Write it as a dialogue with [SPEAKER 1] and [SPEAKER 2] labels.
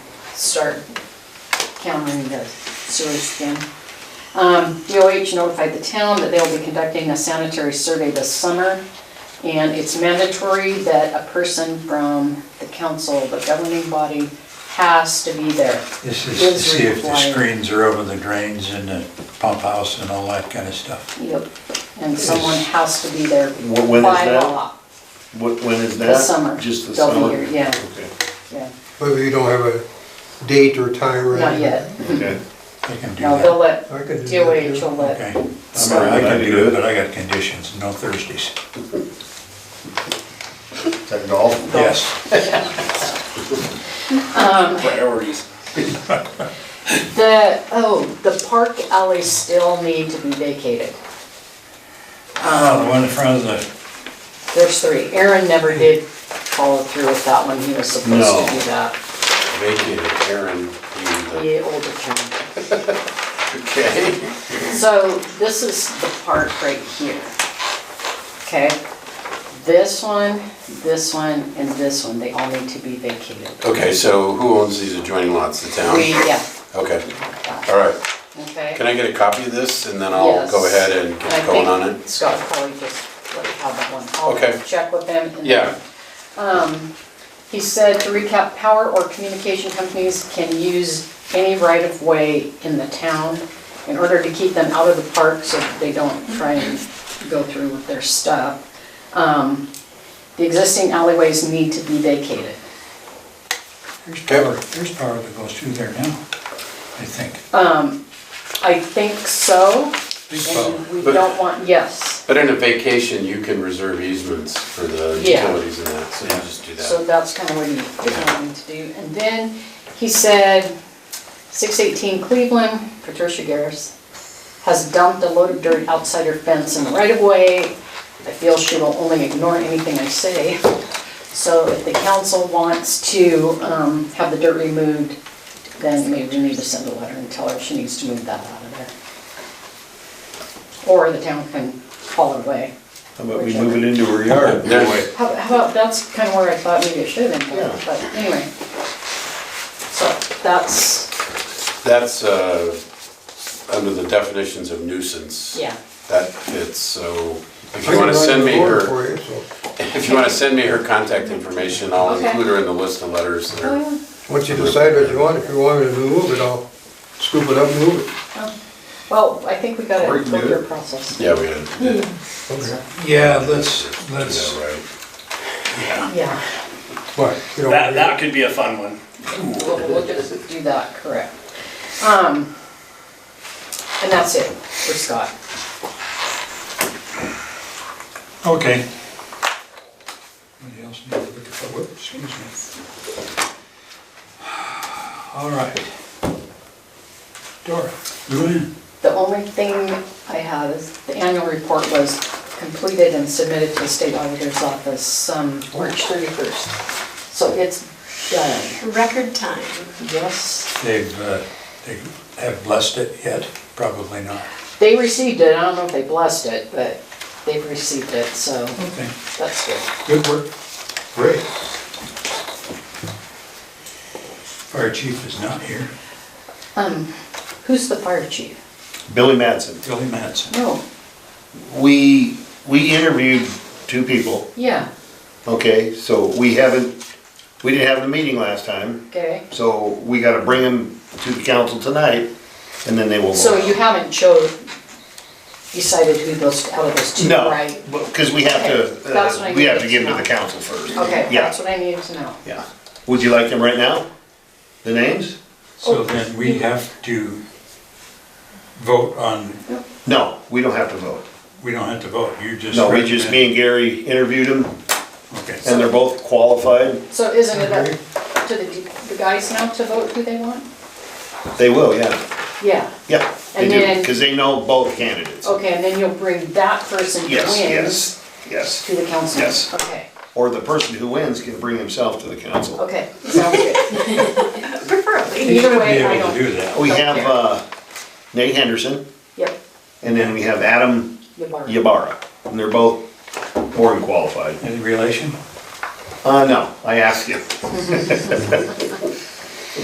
[SPEAKER 1] start countering the sewage scam. Um, DOH notified the town that they'll be conducting a sanitary survey this summer. And it's mandatory that a person from the council, the governing body, has to be there.
[SPEAKER 2] This is to
[SPEAKER 1] Is
[SPEAKER 2] see if the
[SPEAKER 1] required.
[SPEAKER 2] screens are over the drains and the pump house and all that kind of stuff.
[SPEAKER 1] Yep. And someone has to be there
[SPEAKER 3] Wh- when is
[SPEAKER 1] by
[SPEAKER 3] that?
[SPEAKER 1] law.
[SPEAKER 3] What, when is that?
[SPEAKER 1] The summer.
[SPEAKER 3] Just the
[SPEAKER 1] They'll be
[SPEAKER 3] summer?
[SPEAKER 1] here, yeah.
[SPEAKER 3] Okay,
[SPEAKER 1] Yeah,
[SPEAKER 4] But we don't have a date or time or anything?
[SPEAKER 1] Not yet.
[SPEAKER 3] okay.
[SPEAKER 2] They can do
[SPEAKER 1] No, they'll
[SPEAKER 2] that.
[SPEAKER 1] let,
[SPEAKER 4] I could do that,
[SPEAKER 1] DOH
[SPEAKER 4] yeah.
[SPEAKER 1] will let
[SPEAKER 2] Okay. I'm all right, I
[SPEAKER 3] Sorry.
[SPEAKER 2] can do it, but I got conditions, no Thursdays.
[SPEAKER 3] Is that golf?
[SPEAKER 2] Yes,
[SPEAKER 5] priorities.
[SPEAKER 1] The, oh, the park alleys still need to be vacated.
[SPEAKER 2] Ah, the one in front of the,
[SPEAKER 1] There's three. Aaron never did follow through with that one. He was supposed
[SPEAKER 3] No.
[SPEAKER 1] to do that.
[SPEAKER 5] Vacated Aaron, the
[SPEAKER 1] The older town.
[SPEAKER 3] Okay.
[SPEAKER 1] So this is the park right here. Okay? This one, this one, and this one, they all need to be vacated.
[SPEAKER 5] Okay, so who owns these adjoining lots, the town?
[SPEAKER 1] We, yeah.
[SPEAKER 5] Okay, all right.
[SPEAKER 1] Okay?
[SPEAKER 5] Can I get a copy of this and then I'll go
[SPEAKER 1] Yes.
[SPEAKER 5] ahead and
[SPEAKER 1] I
[SPEAKER 5] get going on
[SPEAKER 1] think
[SPEAKER 5] it?
[SPEAKER 1] Scott probably just let you have that one.
[SPEAKER 5] Okay.
[SPEAKER 1] I'll check with them. and then- um,
[SPEAKER 5] Yeah,
[SPEAKER 1] He said, to recap, power or communication companies can use any right-of-way in the town in order to keep them out of the park so that they don't try and go through with their stuff. Um, The existing alleyways need to be vacated.
[SPEAKER 2] there's power, there's power that goes through there now, I think.
[SPEAKER 1] I think so,
[SPEAKER 2] Big power.
[SPEAKER 1] and we don't want, yes.
[SPEAKER 5] but in a vacation, you can reserve easements for the
[SPEAKER 1] Yeah.
[SPEAKER 5] utilities and that, so you just do
[SPEAKER 1] So
[SPEAKER 5] that.
[SPEAKER 1] that's kind of what he's wanting to do. And then he said, 618 Cleveland, Patricia Garris, has dumped a load of dirt outside her fence in the right of way. I feel she will only ignore anything I say. So if the council wants to um, have the dirt removed, then maybe we need to send a letter and tell her she needs to move that out of there. Or the town can haul it away.
[SPEAKER 3] How about we move it into her yard?
[SPEAKER 5] There's-
[SPEAKER 1] How how about, that's kind of where I thought maybe it should have been,
[SPEAKER 3] Yeah.
[SPEAKER 1] put, but anyway. So that's,
[SPEAKER 5] That's, uh, under the definitions of nuisance.
[SPEAKER 1] yeah,
[SPEAKER 5] That fits, so if
[SPEAKER 4] I
[SPEAKER 5] you wanna
[SPEAKER 4] can write
[SPEAKER 5] send
[SPEAKER 4] a
[SPEAKER 5] me
[SPEAKER 4] warrant
[SPEAKER 5] her,
[SPEAKER 4] for you, so,
[SPEAKER 5] if you wanna send me her contact information, I'll
[SPEAKER 1] Okay.
[SPEAKER 5] include her in the list of letters that are.
[SPEAKER 1] oh
[SPEAKER 4] Once you decide what you want, if you want me to move it, I'll scoop it up and move it.
[SPEAKER 1] yeah. Oh. Well, I think we got
[SPEAKER 3] Or
[SPEAKER 1] a
[SPEAKER 3] you can do
[SPEAKER 1] clear
[SPEAKER 3] it.
[SPEAKER 1] process.
[SPEAKER 5] Yeah, we had, yeah,
[SPEAKER 2] Yeah, let's, let's,
[SPEAKER 5] right.
[SPEAKER 1] Yeah,
[SPEAKER 4] But, you know.
[SPEAKER 6] That, that could be a fun one.
[SPEAKER 1] we'll, we'll just do that, correct. Um, and that's it for Scott.
[SPEAKER 2] okay. Anybody else need to look at that? Whoop, Excuse me. All right. Dora, go ahead.
[SPEAKER 1] The only thing I have is, the annual report was completed and submitted to the state auditor's office, um, March thirty-first. So it's done,
[SPEAKER 7] Record time.
[SPEAKER 1] yes.
[SPEAKER 2] They've, uh, they have blessed it yet? Probably not.
[SPEAKER 1] They received it, I don't know if they blessed it, but they've received it, so
[SPEAKER 2] Okay,
[SPEAKER 1] that's good.
[SPEAKER 2] good work.
[SPEAKER 4] Great.
[SPEAKER 2] Fire chief is not here.
[SPEAKER 1] Who's the fire chief?
[SPEAKER 3] Billy Madsen.
[SPEAKER 2] Billy Madsen.
[SPEAKER 1] No,
[SPEAKER 3] We, we interviewed two people,
[SPEAKER 1] yeah,
[SPEAKER 3] okay, so we haven't, we didn't have the meeting last time,
[SPEAKER 1] okay.
[SPEAKER 3] so we gotta bring them to the council tonight, and then they will. vote.
[SPEAKER 1] So you haven't chose, decided who those, out of those two,
[SPEAKER 3] No,
[SPEAKER 1] right?
[SPEAKER 3] because we have
[SPEAKER 1] Okay,
[SPEAKER 3] to,
[SPEAKER 1] that's what
[SPEAKER 3] uh,
[SPEAKER 1] I
[SPEAKER 3] we have
[SPEAKER 1] needed
[SPEAKER 3] to
[SPEAKER 1] to
[SPEAKER 3] give them to
[SPEAKER 1] know.
[SPEAKER 3] the council first.
[SPEAKER 1] Okay,
[SPEAKER 3] Yeah.
[SPEAKER 1] that's what I needed to know.
[SPEAKER 3] Yeah. Would you like them right now? The names?
[SPEAKER 2] So then we have to vote on,
[SPEAKER 3] No, we don't have to vote.
[SPEAKER 2] we don't have to vote, you just.
[SPEAKER 3] No, we just, me and Gary interviewed them,
[SPEAKER 2] Okay,
[SPEAKER 3] and they're both qualified.
[SPEAKER 1] So isn't it up to the, the guys now to vote who they want?
[SPEAKER 3] They will, yeah,
[SPEAKER 1] Yeah,
[SPEAKER 3] yeah, they
[SPEAKER 1] And
[SPEAKER 3] do,
[SPEAKER 1] then-
[SPEAKER 3] because they know both candidates.
[SPEAKER 1] okay, and then you'll bring that person who
[SPEAKER 3] Yes,
[SPEAKER 1] wins
[SPEAKER 3] yes, yes.
[SPEAKER 1] to the council?
[SPEAKER 3] Yes.
[SPEAKER 1] Okay,
[SPEAKER 3] Or the person who wins can bring himself to the council.
[SPEAKER 1] okay, sounds good.
[SPEAKER 7] Preferably.
[SPEAKER 1] Either way, I
[SPEAKER 2] able to do
[SPEAKER 1] don't,
[SPEAKER 2] that.
[SPEAKER 3] We
[SPEAKER 1] Don't
[SPEAKER 3] have
[SPEAKER 1] care.
[SPEAKER 3] uh, Nate Henderson,
[SPEAKER 1] yep,
[SPEAKER 3] and then we have Adam
[SPEAKER 1] you borrow.
[SPEAKER 3] Yabara, and they're both more than qualified.
[SPEAKER 2] Any relation?
[SPEAKER 3] Uh, no, I asked you.